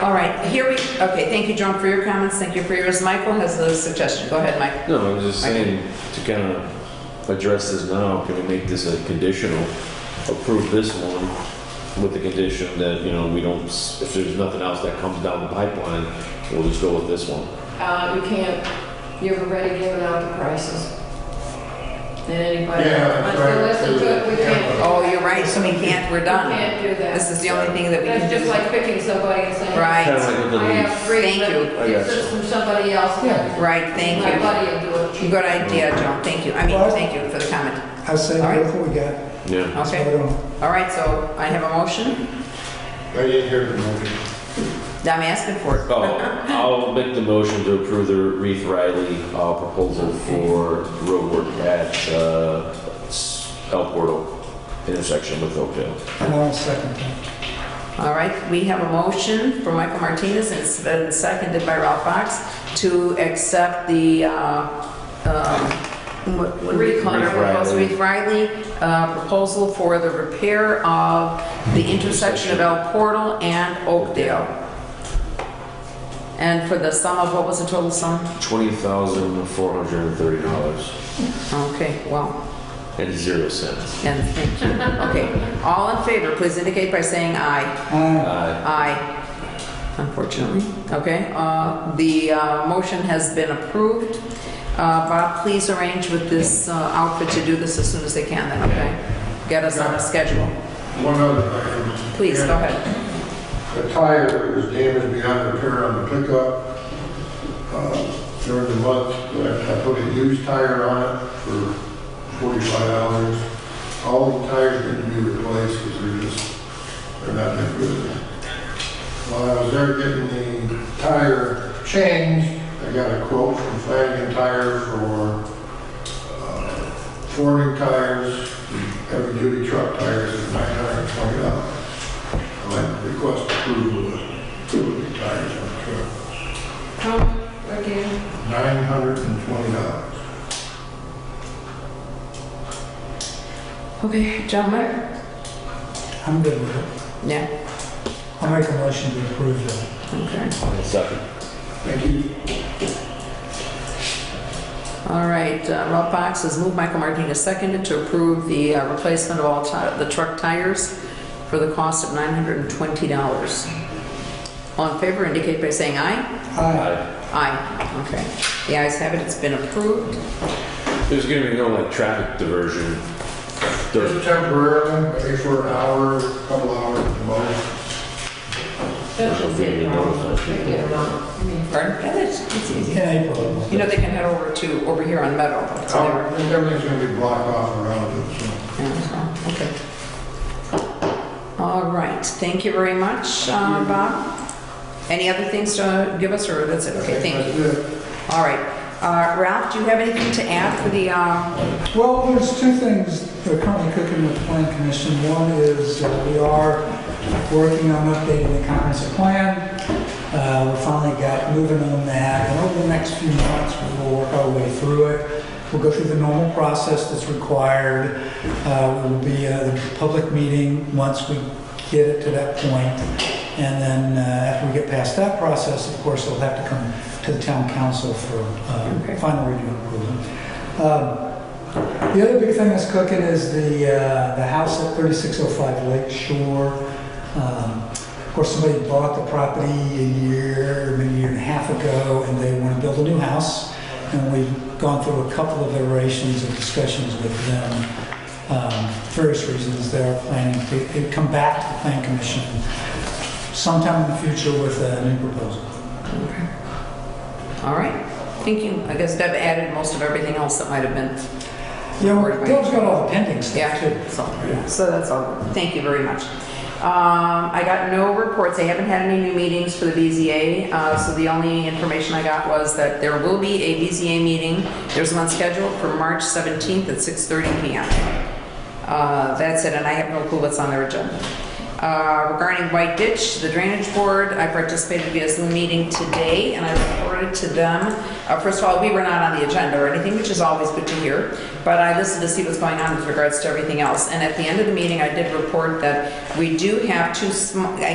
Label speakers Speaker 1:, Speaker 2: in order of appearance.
Speaker 1: All right, here we, okay, thank you, John, for your comments, thank you for yours. Michael has a suggestion, go ahead, Mike.
Speaker 2: No, I was just saying, to kind of address this now, can we make this a conditional? Approve this one with the condition that, you know, we don't, s- if there's nothing else that comes down the pipeline, we'll just go with this one.
Speaker 3: Uh, you can't, you've already given out the prices. And anybody,
Speaker 4: Yeah, that's right.
Speaker 3: until listen to it, we can't.
Speaker 1: Oh, you're right, so we can't, we're done.
Speaker 3: We can't do that.
Speaker 1: This is the only thing that we can do.
Speaker 3: That's just like picking somebody and saying.
Speaker 2: Kind
Speaker 1: Right,
Speaker 2: of like with the
Speaker 3: I
Speaker 2: leaf.
Speaker 3: have three,
Speaker 1: Thank
Speaker 3: but
Speaker 1: you.
Speaker 2: I
Speaker 3: it's
Speaker 2: got
Speaker 3: just from somebody else.
Speaker 4: Yeah.
Speaker 1: right, thank
Speaker 3: My
Speaker 1: you.
Speaker 3: buddy will do it.
Speaker 1: Good idea, John, thank you, I mean, thank you for the comment.
Speaker 5: I say,
Speaker 1: All right.
Speaker 5: look what we got.
Speaker 2: Yeah.
Speaker 1: Okay, all right, so I have a motion,
Speaker 4: I didn't hear the motion.
Speaker 1: Now I'm asking for it.
Speaker 2: Oh, I'll make the motion to approve the Reeve Riley uh, proposal for roadwork at uh, S- El Portal intersection with Oakdale.
Speaker 5: And I'll second that.
Speaker 1: All right, we have a motion for Michael Martinez, and it's been seconded by Ralph Fox, to accept the, uh, um, what what do we call it?
Speaker 2: Reeve Riley.
Speaker 1: Reeve Riley uh, proposal for the repair of the intersection of El Portal and Oakdale. And for the sum of, what was the total sum?
Speaker 2: $20,430
Speaker 1: Okay, well,
Speaker 2: and zero cents.
Speaker 1: and thank you. Okay, all in favor, please indicate by saying aye.
Speaker 5: Aye.
Speaker 2: Uh,
Speaker 1: Aye, unfortunately. Okay, uh, the uh, motion has been approved. Uh, Bob, please arrange with this uh, outfit to do this as soon as they can, then, okay? Get us on a schedule.
Speaker 4: One other thing.
Speaker 1: Please, go ahead.
Speaker 4: A tire that was damaged beyond repair on the pickup uh, during the month. I I put a used tire on it for forty-five dollars. All the tires need to be replaced because they're just, they're not that good. While I was there getting the tire changed, I got a quote from Flanagan Tire for uh, forming tires, heavy duty truck tires at nine hundred and twenty dollars. I might request approval of two of the tires on the truck.
Speaker 3: Come again.
Speaker 4: Nine hundred and twenty dollars.
Speaker 1: Okay, John Mayer?
Speaker 5: I'm good with it.
Speaker 1: Yeah,
Speaker 5: I'll make a motion to approve that.
Speaker 1: okay.
Speaker 2: Second.
Speaker 4: Thank you.
Speaker 1: All right, uh, Ralph Fox has moved, Michael Martinez seconded to approve the uh, replacement of all ti- the truck tires for the cost of $920. All in favor indicate by saying aye.
Speaker 5: Aye.
Speaker 2: Aye.
Speaker 1: Aye, okay. The ayes have it, it's been approved.
Speaker 2: There's gonna be no like traffic diversion. There's-
Speaker 4: Just temporarily, maybe for an hour, a couple hours at the most.
Speaker 3: That's
Speaker 2: There's
Speaker 3: just it,
Speaker 2: a video
Speaker 3: Ron.
Speaker 2: notification.
Speaker 3: Pick it up. I mean,
Speaker 1: Pardon? Yeah, that's- it's
Speaker 5: In
Speaker 1: easy.
Speaker 5: April.
Speaker 1: You know, they can head over to, over here on Meadow. It's
Speaker 4: Hour,
Speaker 1: there.
Speaker 4: I think Everything's gonna be blocked off around it, so.
Speaker 1: Yeah, so, Okay. All right, thank you very much, uh, Bob. Any other things to give us, or that's it? Okay, thank you.
Speaker 4: That's it.
Speaker 1: All right. Uh, Ralph, do you have anything to add for the, uh,
Speaker 5: Well, there's two things that are currently cooking with the plan commission. One is uh, we are working on updating the comprehensive plan. Uh, We finally got moving on that, and over the next few months, we will work our way through it. We'll go through the normal process that's required. Uh, We'll be at a public meeting once we get it to that point. And then uh, after we get past that process, of course, it'll have to come to the town council for
Speaker 1: Okay.
Speaker 5: uh, final review and approval. Um, the other big thing that's cooking is the, uh, the house at 3605 Lake Shore. Um, Of course, somebody bought the property a year, maybe a year and a half ago, and they want to build a new house. And we've gone through a couple of iterations of discussions with them. Um, Various reasons they're planning to they've come back to the plan commission sometime in the future with a new proposal.
Speaker 1: all right, thank you. I guess Deb added most of everything else that might have been,
Speaker 5: Yeah, Dale's got all the pending stuff too.
Speaker 1: yeah, so, so that's all. Thank you very much. Um, I got no reports. I haven't had any new meetings for the BZA, uh, so the only information I got was that there will be a BZA meeting. There's one scheduled for March 17th at 6:30 PM. Uh, That's it, and I have no clue what's on their agenda. Uh, Regarding White Ditch, the Drainage Board, I participated via Zoom meeting today, and I reported to them. Uh, First of all, we were not on the agenda or anything, which is always good to hear, but I listened to see what's going on with regards to everything else. And at the end of the meeting, I did report that we do have two, sm- I